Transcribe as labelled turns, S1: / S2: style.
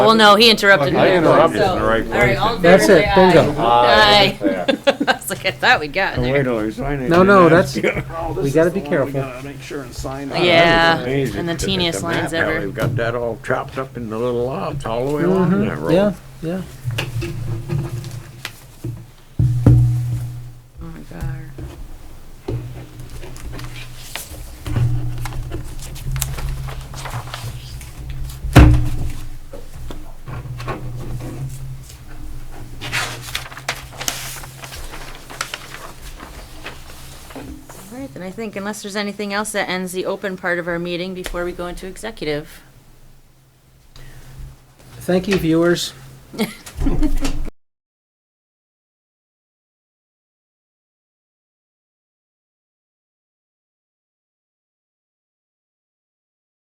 S1: Well, no, he interrupted me.
S2: I interrupted
S1: so-
S2: in the right Ah,
S1: All right, all in favor,
S3: That's
S1: say
S3: it, bingo.
S1: aye.
S2: Aye.
S1: Aye. I was like, I thought we'd gotten
S2: Wait
S1: there.
S2: till we sign it.
S3: No,
S2: and
S3: no,
S2: then
S3: that's-
S2: ask you.
S4: Oh,
S3: We
S4: this
S3: gotta
S4: is the
S3: be
S4: one we
S3: careful.
S4: gotta make sure and sign.
S2: That was
S1: Yeah,
S2: amazing.
S1: and the
S2: Look at
S1: teeniest
S2: map,
S1: lines
S2: how
S1: ever.
S2: They've got that all chopped up into little lots all the way along that road.
S3: Mm-hmm. Yeah, yeah.
S1: Oh my god. All right, then I think unless there's anything else that ends the open part of our meeting before we go into executive.
S3: Thank you, viewers.